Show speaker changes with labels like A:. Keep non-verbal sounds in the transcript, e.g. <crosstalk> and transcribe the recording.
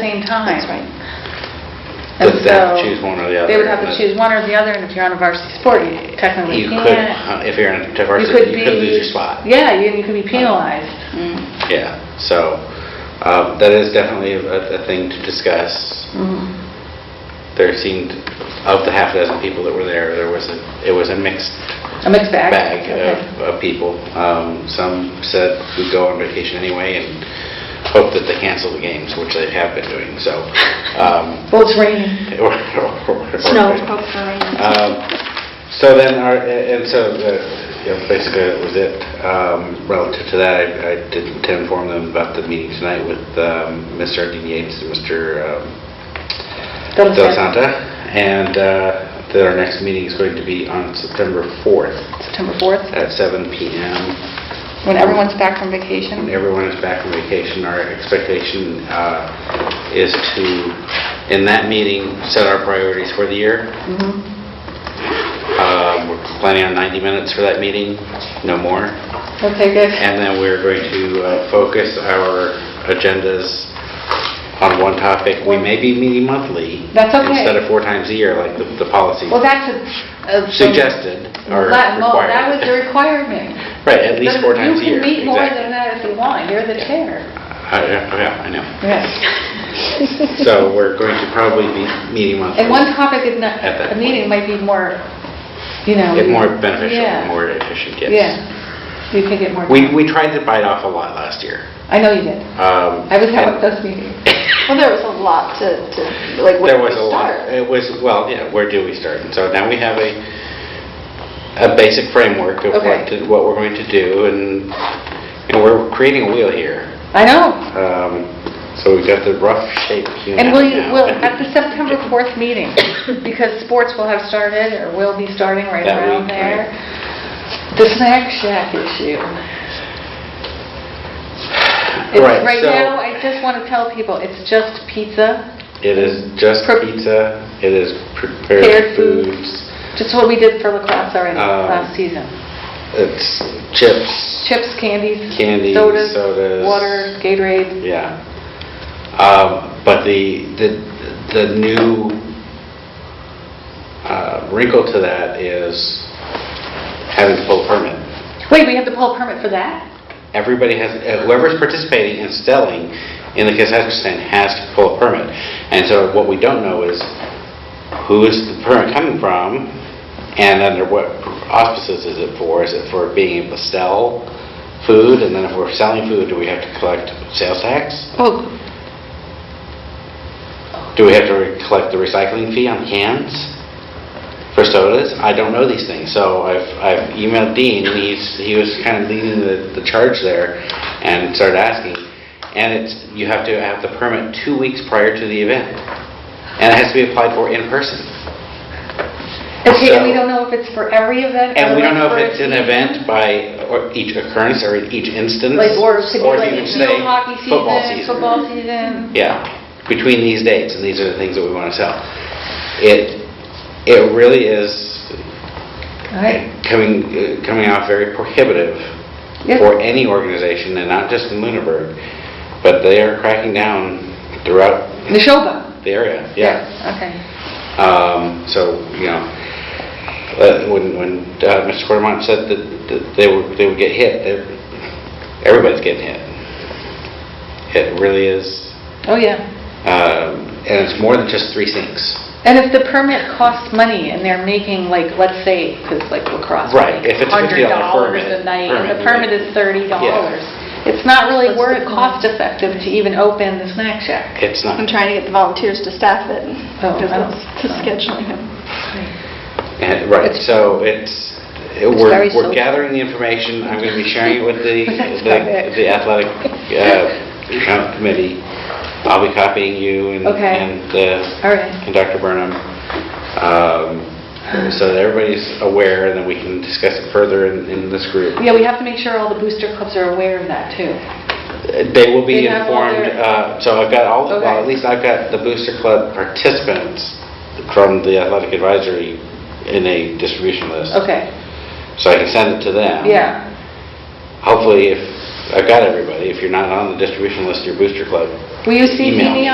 A: same time.
B: That's right.
A: And
C: But they have to
A: so
C: choose one or the other,
A: They would have to
C: but-
A: choose one or the other, and if you're on a varsity sport, you technically
C: You could,
A: Oh,
C: uh,
A: can't.
C: if you're in a
A: You
C: varsity, you could
A: be-
C: lose your spot.
A: Yeah, you you could be penalized.
B: Mm.
C: Yeah, so um, that is definitely a a thing to discuss.
A: Mm-hmm.
C: There seemed, of the half dozen people that were there, there was a, it was a mixed
A: A mixed bag?
C: bag
A: Okay.
C: of of people. Um, Some said we'd go on vacation anyway and hope that they cancel the games, which they have been doing, so. um,
A: Well, it's raining.
C: or- or- or- <laughs>
B: Snow, hopefully.
C: Um, So then, our and so, uh, you know, basically, that was it. Um, Relative to that, I I did to inform them about the meeting tonight with um, Mr. Dean Yates and Mr. um,
A: Don't
C: Del
A: say-
C: Santa, and uh, that our next meeting is going to be on September 4th
A: September 4th,
C: at 7 PM.
B: When everyone's back from
C: When
B: vacation.
C: everyone is back from vacation, our expectation uh, is to, in that meeting, set our priorities for the year.
A: Mm-hmm.
C: Um, We're planning on 90 minutes for that meeting, no more.
A: okay, good.
C: And then we're going to uh, focus our agendas on one topic. We may be meeting monthly.
A: That's okay.
C: Instead of four times a year, like the the policy
A: Well, that's a... a-
C: suggested or
A: That- well,
C: required.
A: That was the requirement.
C: <laughs> Right, at least four times a
A: You
C: year.
A: can meet more
C: exactly.
A: than that if you want, you're the chair.
C: I- I- Yeah, I know.
A: Yes.
C: So we're going to probably be meeting monthly.
A: And one topic in the-
C: At
A: a
C: that
A: meeting might be more, you know...
C: Get more beneficial,
A: Yeah.
C: more efficient, yes.
A: Yeah, you could get more...
C: We, we tried to bite off a lot last year.
A: I know you did.
C: Um,
A: I was having
C: and
A: those meetings.
B: Well, there was a lot to, to, like, where
C: There
B: do we
C: was a lot,
B: start?
C: it was, well, yeah, where do we start? And so now we have a, a basic framework of
A: Okay.
C: what, to- what we're going to do, and, and we're creating a wheel here.
A: I know.
C: Um, So we've got the rough shape hewn
A: And
C: out
A: will you,
C: now.
A: will, at
C: <laughs>
A: the September 4th meeting, because sports will have started, or will be starting right
C: That
A: around
C: week,
A: there, the snack shack issue. It's-
C: Right,
A: Right
C: so-
A: now, I just want to tell people, it's just pizza,
C: It is just
A: Pre-
C: pizza, it is
A: Prepared
C: prepared
A: foods.
C: foods,
A: just what we did for lacrosse already
C: Um,
A: last season.
C: it's chips,
A: Chips, candies,
C: Candies,
A: sodas,
C: sodas.
A: water, Gatorade.
C: Yeah. Um, But the, the the new uh, wrinkle to that is having to pull a permit.
A: Wait, we have to pull a permit for that?
C: Everybody has, uh, whoever's participating and selling in the concession stand has to pull a permit. And so what we don't know is who is the permit coming from and under what auspices is it for? Is it for being able to sell food? And then if we're selling food, do we have to collect sales tax?
B: Oh,
C: Do we have to re- collect the recycling fee on cans for sodas? I don't know these things, so I've I've emailed Dean, and he's, he was kind of leading the the charge there and started asking. And it's, you have to have the permit two weeks prior to the event, and it has to be applied for in person.
A: Okay, and we
C: So-
A: don't know if it's for every event?
C: And
A: or
C: we don't know
A: for a
C: if it's an
A: season.
C: event by or each occurrence or each instance.
A: Like, or could
C: or
A: be like
C: you can
A: field
C: say
A: hockey
C: football
A: season, football season.
C: yeah, between these dates, and these are the things that we want to sell. It, it really is
A: Right.
C: coming, uh, coming off very prohibitive
A: Yeah.
C: for any organization, and not just in Lunenburg, but they are cracking down throughout
A: Neshoba?
C: the area, yeah.
A: Okay.
C: Um, So, you know, uh, when, when uh, Mr. Quartermont said that that they would, they would get hit, they're- everybody's getting hit. It really is,
A: Oh, yeah.
C: um, and it's more than just three sinks.
A: And if the permit costs money and they're making like, let's say, because like lacrosse,
C: Right,
A: like
C: if it's a $50
A: $100
C: permit,
A: a night, and the
C: permit,
A: permit is $30. It's not really worth, cost effective to even open the snack shack.
C: It's not,
B: I'm trying to get the volunteers to staff it,
A: Oh,
B: because
A: oh.
B: it's to scheduling them.
C: eh, right, so it's, eh, we're,
A: very
C: we're
A: social.
C: gathering the information, I'm going to be sharing it with
A: <laughs>
C: the,
A: That's
C: the-
A: about it.
C: the athletic uh, comp committee. I'll be copying you and,
A: Okay.
C: and uh,
A: All right.
C: and Dr. Burnham, um, so that everybody's aware, and then we can discuss it further in, in this group.
A: Yeah, we have to make sure all the booster clubs are aware of that, too.
C: They will be
A: They have all
C: informed,
A: their-
C: uh, so I've got all, well,
A: Okay.
C: at least I've got the Booster Club participants from the athletic advisory in a distribution list.
A: Okay,
C: So I can send it to them.
A: yeah.
C: Hopefully, if, I've got everybody, if you're not on the distribution list, your Booster Club
A: Will you
C: Email
A: CC me
C: me.